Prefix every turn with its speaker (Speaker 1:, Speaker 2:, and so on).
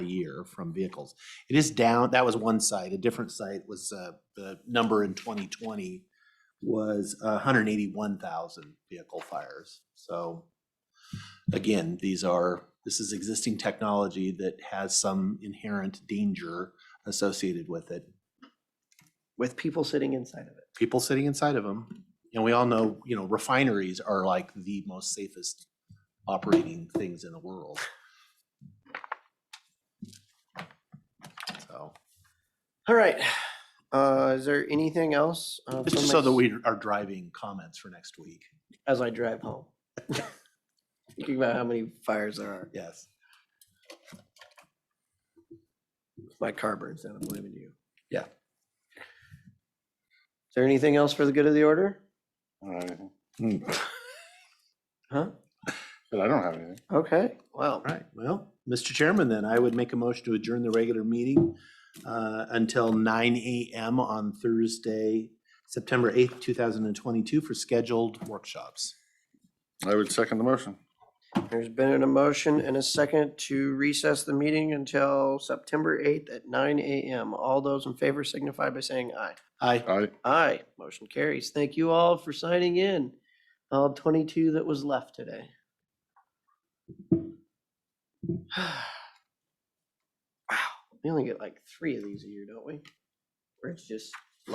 Speaker 1: year from vehicles. It is down, that was one site. A different site was, uh, the number in twenty twenty was hundred and eighty-one thousand vehicle fires. So again, these are, this is existing technology that has some inherent danger associated with it.
Speaker 2: with people sitting inside of it.
Speaker 1: People sitting inside of them. And we all know, you know, refineries are like the most safest operating things in the world. So,
Speaker 2: All right. Uh, is there anything else? uh,
Speaker 1: just
Speaker 2: from
Speaker 1: so
Speaker 2: my-
Speaker 1: that we are driving comments for next week.
Speaker 2: As I drive home. Thinking about how many fires there are.
Speaker 1: Yes.
Speaker 2: My car burns down. I'm blaming you.
Speaker 1: Yeah.
Speaker 2: Is there anything else for the good of the order?
Speaker 1: Mm.
Speaker 2: Huh?
Speaker 3: But I don't have anything.
Speaker 2: Okay. Well,
Speaker 1: All right, well, Mr. Chairman, then I would make a motion to adjourn the regular meeting uh, until nine AM on Thursday, September eighth, two thousand and twenty-two for scheduled workshops.
Speaker 3: I would second the motion.
Speaker 2: there's been a motion and a second to recess the meeting until September 8th at 9 a.m. All those in favor signify by saying aye.
Speaker 1: Aye.
Speaker 3: Aye.
Speaker 2: Aye. Motion carries. Thank you all for signing in. All 22 that was left today. Wow, we only get like three of these a year, don't we? Where it's just